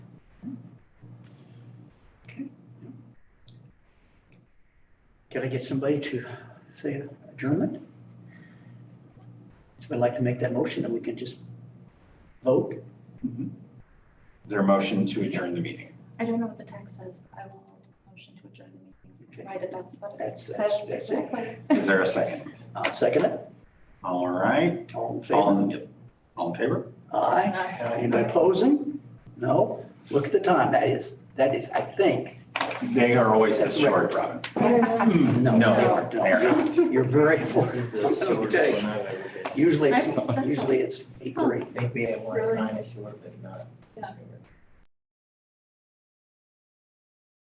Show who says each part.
Speaker 1: Can I get somebody to say adjournment? So I'd like to make that motion and we can just vote.
Speaker 2: Is there a motion to adjourn the meeting?
Speaker 3: I don't know what the text says, but I will motion to adjourn the meeting, provided that's what it
Speaker 1: That's-
Speaker 3: says
Speaker 1: that's- that's it.
Speaker 3: exactly.
Speaker 2: Is there a second?
Speaker 1: I'll second it.
Speaker 2: All right,
Speaker 1: All in
Speaker 2: all
Speaker 1: favor?
Speaker 2: in, all in favor?
Speaker 1: Aye.
Speaker 3: Uh,
Speaker 1: Anybody opposing? No? Look at the time. That is, that is, I think.
Speaker 2: They are always this short, Robin.
Speaker 1: No,
Speaker 2: No,
Speaker 1: they aren't.
Speaker 2: they are
Speaker 1: No, you're- you're very
Speaker 4: This
Speaker 1: fortunate.
Speaker 4: is the
Speaker 1: Let me tell you.
Speaker 4: shortest one I've ever been.
Speaker 1: Usually, it's
Speaker 3: I think so.
Speaker 1: usually it's eight or eight.
Speaker 4: Maybe at one
Speaker 3: Really?
Speaker 4: time it's short, but not.
Speaker 3: Yeah.
Speaker 4: it's short.